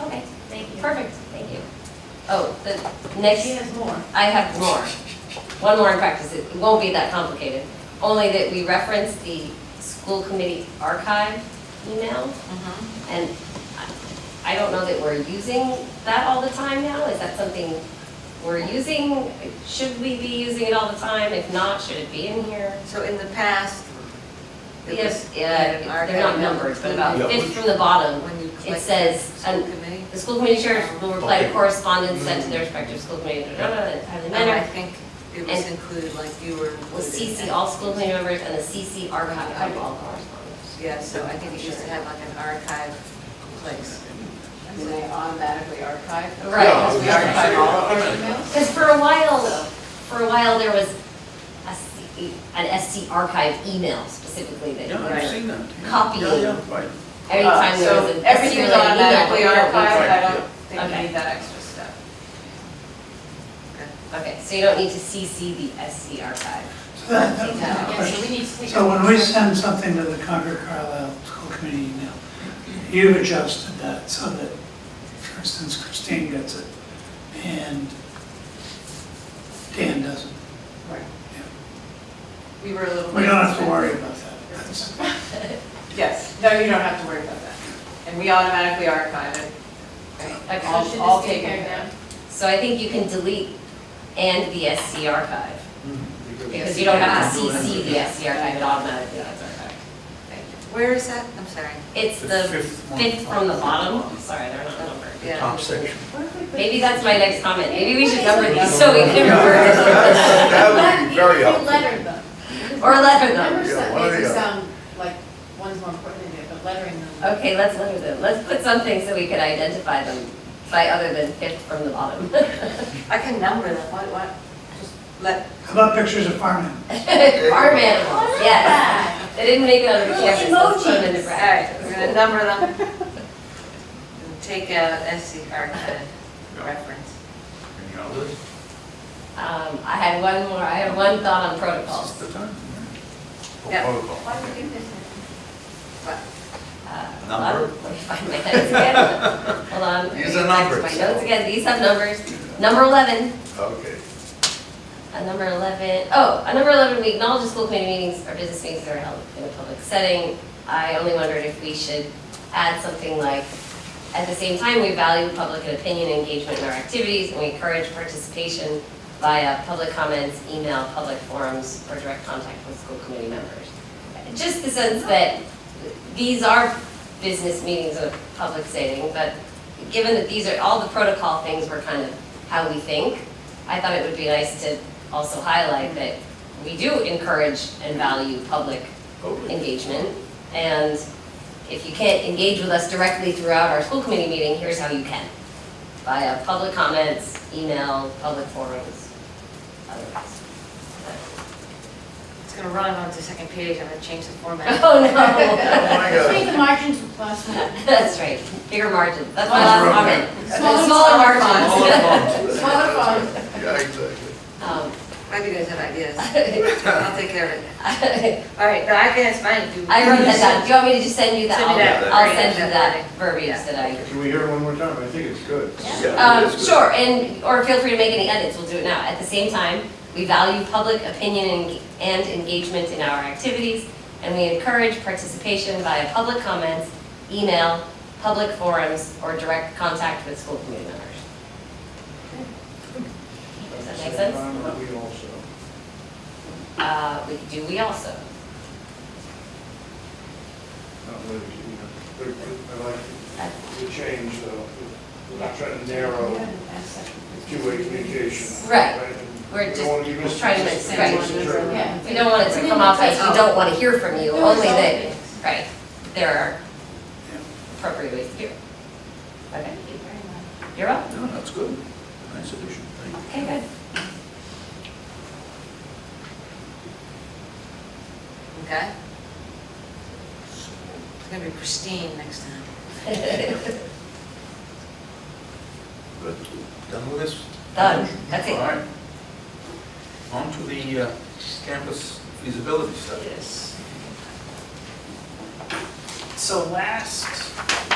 Okay, Thank you. perfect, thank you. Oh, the next, She has more. I have more. One more in practice, it it won't be that complicated. Only that we referenced the school committee archive email, and I- I don't know that we're using that all the time now. Is that something we're using? Should we be using it all the time? If not, should it be in here? So in the past, it Yes, was. yeah, they're not numbered, but about Yeah. fifth from the bottom, When you it click says, school and committee. the school committee chairs will reply to Okay. correspondence sent to their respective school committee, blah, blah, blah, in a timely And I manner. think it was And- included, like you were included. Will CC all school committee members and the CC archive of all correspondence. Yeah, so I think it used to have like an archive place. Do they automatically archive? Uh, Right. Yeah, I Because was we just gonna archive say, all of our alright. emails? Because for a while, for a while, there was a C- an SC archive email specifically that you Yeah, I've were, seen that. Yeah, Copy. Yeah, yeah, right. every Uh, time there was So an SC related everything's email. automatically we don't- archived, I Right, don't think yeah. you need that extra step. Okay, so you don't need to CC the SC archive. Yeah, so we need to. So when we send something to the Concord Carlisle School Committee email, you've adjusted that so that, for instance, Christine gets it and Dan doesn't. Right. Yeah. We were a little. We don't have to worry about that. That's- Yes, no, you don't have to worry about that. And we automatically archive it. Okay. All- should all this be taken taken care of. So I think you can delete and the SC archive, because you don't have to CC the SC archive, it automatically gets archived. Where is that? I'm sorry. It's The the fifth one. fifth from the bottom, sorry, they're not numbered. Yeah. Top section. Maybe that's my next comment, maybe we should number these so we can refer. That would be very You helpful. lettered them. Or letter them. Numbers Yeah, that one or makes the it uh, other. sound like one's more important than the other, but lettering them. Okay, let's letter them, let's put something so we can identify them by other than fifth from the bottom. I can number them, what, what, just let, How about pictures of farmland? Farm animals, yes. They didn't make it on the Little campus, let's put them in the emojis. all right, practice. we're gonna number them. And Take out SC archive reference. Any others? Um, I had one more, I had one thought on protocols. This is the time. Oh, Yeah. Protocol. Why would you do this? Uh, Number. Let me find my notes again. Hold on. let me Use a get back number. to My notes again, these have numbers. Number 11, oh. Okay. a number 11, oh, a number 11, we acknowledge the school committee meetings or business meetings that are held in a public setting. I only wondered if we should add something like, at the same time, we value public and opinion engagement in our activities, and we encourage participation via public comments, email, public forums, or direct contact with school committee members. Just the sense that these are business meetings of public setting, but given that these are, all the protocol things were kind of how we think, I thought it would be nice to also highlight that we do encourage and value public engagement. And if you can't engage with us directly throughout our school committee meeting, here's how you can. Via public comments, email, public forums, otherwise. It's gonna run onto the second page, I'm gonna change the format. Oh, no. Oh, my Just God. make the margins plus one. That's right, bigger margin. That's my last comment. Smaller- Smaller margins. All at once. Smaller font. Yeah, exactly. Um, Maybe you guys have ideas. I'll take care of it. All right, no, I can, it's mine, do. I wrote that down. Do you want me to just send you that? Send me that. I'll I'll send you Yeah. that verbiage that I. Can we hear it one more time? I think it's good. Yeah, Um, it is good. sure, and, or feel free to make any edits, we'll do it now. At the same time, we value public opinion and- and engagement in our activities, and we encourage participation via public comments, email, public forums, or direct contact with school committee members. Does that make sense? We also. Uh, we, do we also? not really, you know, but- but I Uh, like the change, though. We're not trying to narrow two-way communication. Right. We're We don't want to be just trying to mis- say- misinterpreted. Yeah. We don't want it to come off as we don't want to hear from you, only that, right, there are appropriate ways to do it. Okay, Thank you very much. you're up. No, that's good. Nice addition. Thank you. Okay, good. Okay? It's gonna be pristine next time. Good. Done with this? Done. That's it. All right. On to the uh, campus feasibility study. Yes. So last